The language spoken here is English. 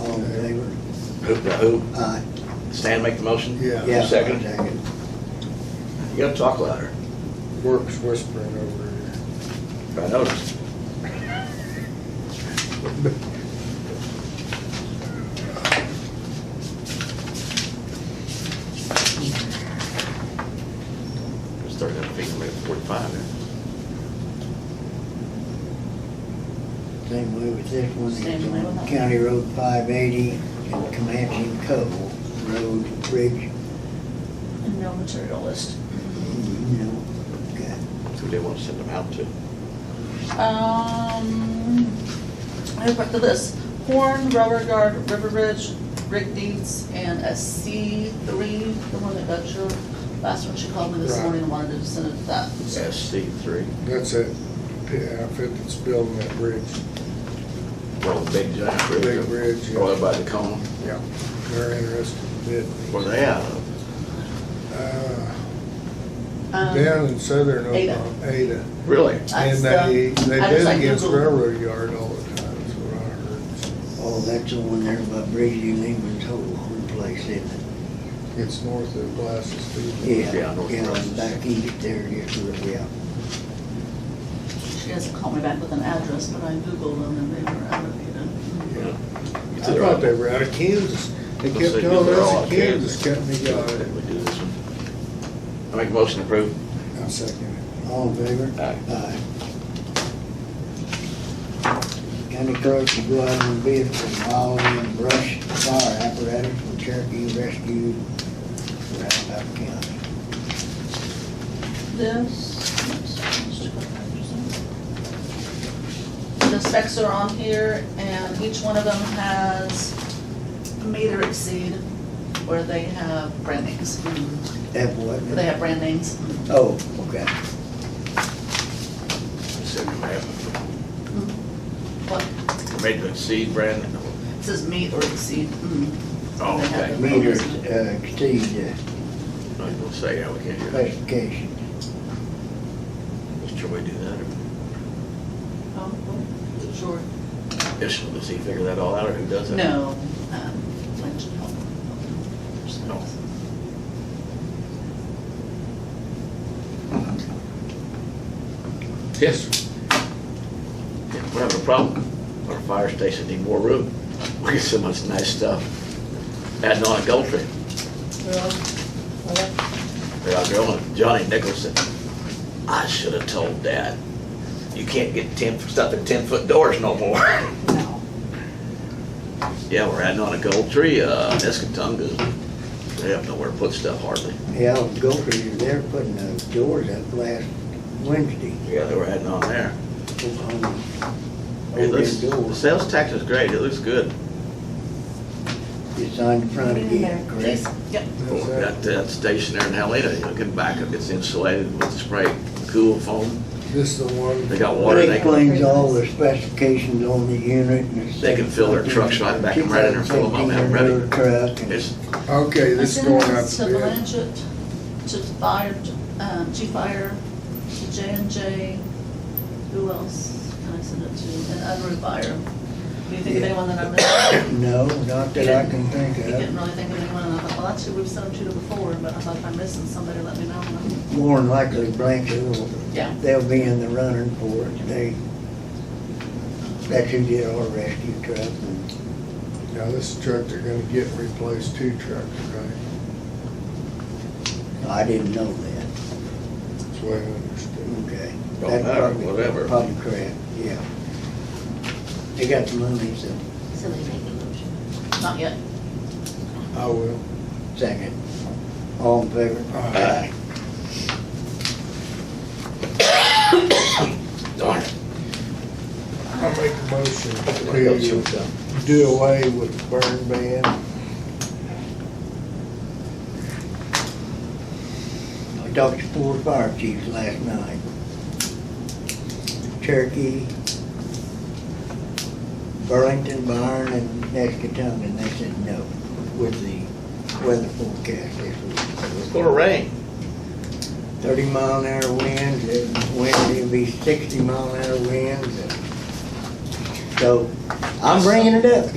All in favor? Who, who, Aye. Stan make the motion? Yeah. Uh, Yeah, Second. second. You gotta talk louder. Works whispering over here. I noticed. It's thirty-nine feet, maybe forty-five there. Same way with this one, Same way with it's that. on County Road five eighty and Comanche and Cove Road Bridge. And no material list. No, okay. Who they wanna send them out to? Um, I have the list, Horn, Rubber Guard, River Ridge, Rick Deeds, and a C three, the one that got your, last one, she called me this Right. morning and wanted to send it to that. So, SC three, That's that pit outfit that's building that bridge. well, the big giant bridge. Big bridge, yeah. Right by the cone, Yeah. They're interested in bidding. where they out of? Uh, um, Down in southern Ada. Oklahoma, Ada. Really? I And just, they, um, they I just, bid like, against Googled. railroad yard all the time, is what I heard. Oh, that's the one there by Bridge New England's whole one place, isn't it? It's north of Glasses Field. Yeah, Yeah, North yeah, Carolina. back east there, yes, where we are. She hasn't called me back with an address, but I Googled them and they were out of, you Yeah. You I thought they were out of Kansas. They Let's see, kept telling they're all us out a of Kansas company got it. We do this one. I make a motion to approve. I second it. All in favor? Aye. Aye. County clerk to go out on bid for modeling and brush fire apparatus for Cherokee Rescue Roundup County. This. The specs are on here, and each one of them has meet or exceed, where they have brand names. Mm-hmm. That what? They have brand names. Oh, okay. Second, I have- Mm-hmm. What, Made the seed brand. it says meet or exceed. Mm-hmm. Oh, They have okay. them. Meters uh, exceed the I was gonna say, yeah, we can't do that. specification. Should we do that? or Oh, well, Sure. Yes, does he figure that all out, or who does that? No. um, Flint should help. No. Yes. Yeah, We're having a problem. Our fire station need more room. We get so much nice stuff. Adding on a gold tree. They're out there on Johnny Nicholson. I should have told Dad, you can't get ten, stuff in ten-foot doors no more. No. Yeah, we're adding on a gold tree, uh, Escatunga's, they have nowhere to put stuff hardly. Yeah, Gopher, they're putting those doors up last Wednesday. Yeah, they were adding on there. Oklahoma. It Over looks, them the doors. sales tax is great, it looks good. It's on the front again, Please, correct? yep. That's Got that. that station there in Helena, you know, get back, up. it's insulated with spray cool foam. This is the one. They got water, It they can, explains all the specifications on the unit and it's. They can fill their trucks right back and right in there, fill them up, have them ready. 2015 Truck and. it's, Okay, I this is sent going out this to to bid. Blanchett, to fire, to, um, to fire, to J and J, who else can I send it to, and Unruh Fire. Do you think of Yeah. anyone that I'm missing? No, not that I can think You didn't of. really think of anyone, and I thought, well, that's who we've sent them to before, but I thought if I'm missing somebody, let me know. More than likely Blanchard will, Yeah. they'll be in the running for it. They, that's who did our rescue truck and Now, this truck, they're gonna get and replace two trucks, right? I didn't know that. That's what I understood. Okay. Don't That's matter, probably- whatever. Probably correct, yeah. They got the money, so, So they make a motion. Not yet. I will. second. All in favor? Aye. darn it. I make a motion I got choked to up. do away with the burn ban. I talked to four fire chiefs last night. Cherokee, Burlington, Byron, and Nescatonga, and they said no with the weather forecast this It's week. gonna rain. Thirty mile an hour winds, and Wednesday will be sixty mile an hour winds. and- So, I'm bringing it up.